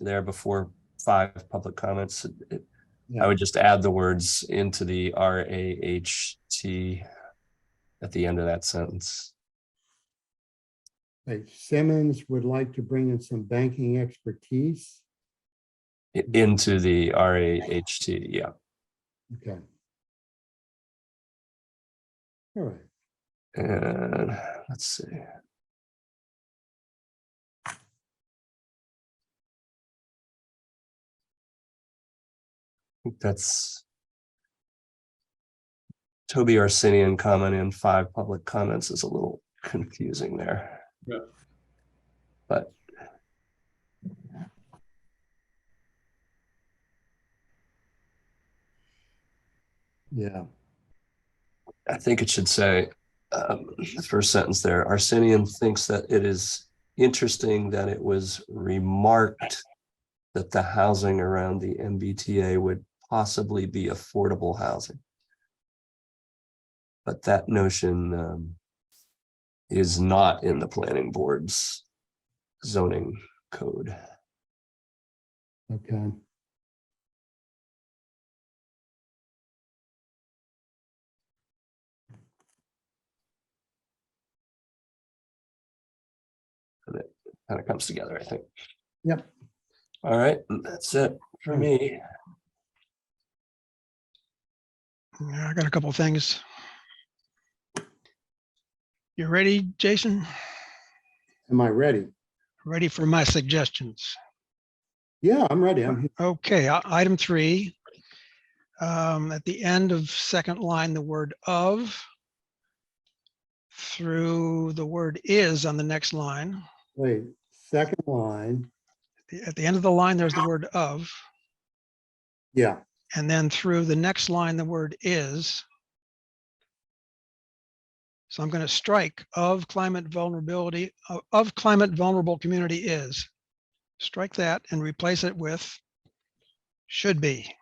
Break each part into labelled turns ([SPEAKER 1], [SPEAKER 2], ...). [SPEAKER 1] there before five public comments. It-
[SPEAKER 2] Yeah.
[SPEAKER 1] I would just add the words into the R A H T at the end of that sentence.
[SPEAKER 2] Like Simmons would like to bring in some banking expertise.
[SPEAKER 1] I- Into the R A H T, yeah.
[SPEAKER 2] Okay. All right,
[SPEAKER 1] And let's see. think That's Toby Arsenian comment in five public comments is a little confusing there.
[SPEAKER 3] Yeah.
[SPEAKER 1] But
[SPEAKER 2] yeah,
[SPEAKER 1] I think it should say, um, the first sentence there, Arsenian thinks that it is interesting that it was remarked that the housing around the MBTA would possibly be affordable housing. But that notion, um, is not in the planning board's zoning code.
[SPEAKER 2] okay.
[SPEAKER 1] Kind of comes together, I think.
[SPEAKER 2] Yep.
[SPEAKER 1] All right, that's it for me.
[SPEAKER 4] Yeah, I got a couple of things. You ready, Jason?
[SPEAKER 2] Am I ready?
[SPEAKER 4] Ready for my suggestions?
[SPEAKER 2] Yeah, I'm ready. I'm, here.
[SPEAKER 4] Okay, i- item three. Um, at the end of second line, the word of through the word is on the next line.
[SPEAKER 2] wait, second line,
[SPEAKER 4] The- At the end of the line, there's the word of,
[SPEAKER 2] yeah,
[SPEAKER 4] and then through the next line, the word is. So I'm going to strike of climate vulnerability, o- of climate vulnerable community is. Strike that and replace it with should be.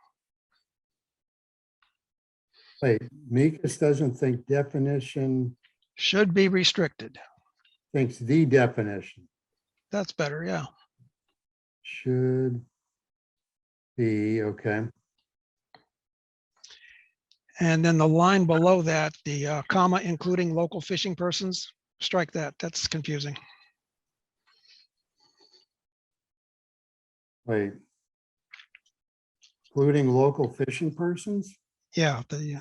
[SPEAKER 2] wait, Mekas doesn't think definition,
[SPEAKER 4] should be restricted.
[SPEAKER 2] thinks the definition
[SPEAKER 4] That's better, yeah.
[SPEAKER 2] should be, okay,
[SPEAKER 4] And then the line below that, the uh, comma, including local fishing persons, strike that. That's confusing.
[SPEAKER 2] wait. Including local fishing persons?
[SPEAKER 4] Yeah, the, uh,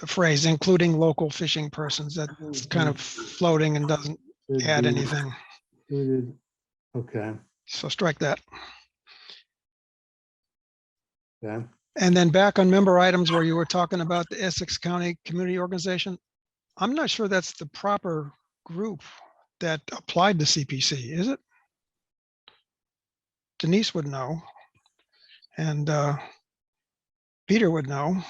[SPEAKER 4] the phrase including local fishing persons, that's kind of floating and doesn't
[SPEAKER 2] Should
[SPEAKER 4] add
[SPEAKER 2] be
[SPEAKER 4] anything.
[SPEAKER 2] included. Okay,
[SPEAKER 4] So strike that.
[SPEAKER 2] okay,
[SPEAKER 4] And then back on member items where you were talking about the Essex County Community Organization. I'm not sure that's the proper group that applied to CPC, is it? Denise would know. And uh, Peter would know.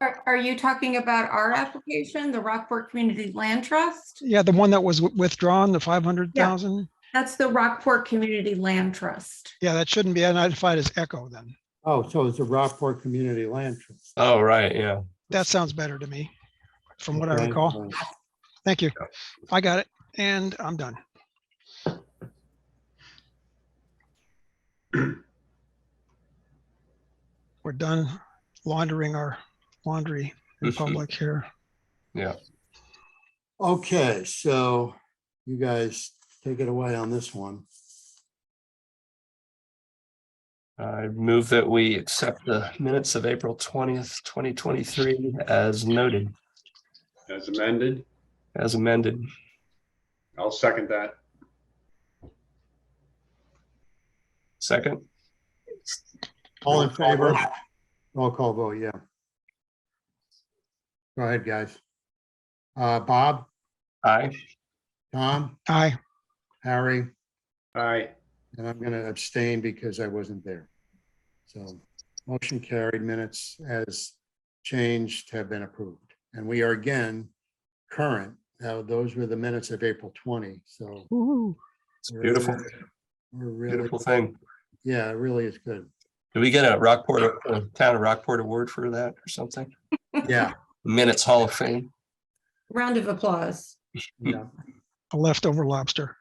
[SPEAKER 5] Are, are you talking about our application, the Rockport Community Land Trust?
[SPEAKER 4] Yeah, the one that was wi- withdrawn, the 500,000.
[SPEAKER 5] That's the Rockport Community Land Trust.
[SPEAKER 4] Yeah, that shouldn't be identified as Echo then.
[SPEAKER 2] oh, so it's a Rockport Community Land Trust.
[SPEAKER 1] Oh, right, yeah.
[SPEAKER 4] That sounds better to me, from what I
[SPEAKER 2] Okay,
[SPEAKER 4] recall.
[SPEAKER 2] right.
[SPEAKER 4] Thank you. I got it. And I'm done. We're done laundering our laundry in public here.
[SPEAKER 2] Okay, so you guys take it away on this one.
[SPEAKER 1] I move that we accept the minutes of April twentieth, twenty twenty-three as noted,
[SPEAKER 3] as amended.
[SPEAKER 1] as amended.
[SPEAKER 3] I'll second that.
[SPEAKER 1] Second,
[SPEAKER 2] All in favor? Roll call vote, yeah. Go ahead, guys. Uh, Bob,
[SPEAKER 1] aye.
[SPEAKER 2] Tom,
[SPEAKER 4] Aye,
[SPEAKER 2] Harry,
[SPEAKER 3] Aye,
[SPEAKER 2] and I'm gonna abstain because I wasn't there. So motion carried minutes as changed have been approved. And we are again current. Now, those were the minutes of April 20, so.
[SPEAKER 4] Woo-hoo.
[SPEAKER 1] It's
[SPEAKER 2] we're-
[SPEAKER 1] beautiful,
[SPEAKER 2] We're really,
[SPEAKER 1] beautiful thing.
[SPEAKER 2] yeah, it really is good.
[SPEAKER 1] Did we get a Rockport, a town of Rockport award for that or something?
[SPEAKER 2] Yeah,
[SPEAKER 1] Minutes Hall of Fame.
[SPEAKER 5] Round of applause.
[SPEAKER 2] yeah.
[SPEAKER 4] a leftover lobster.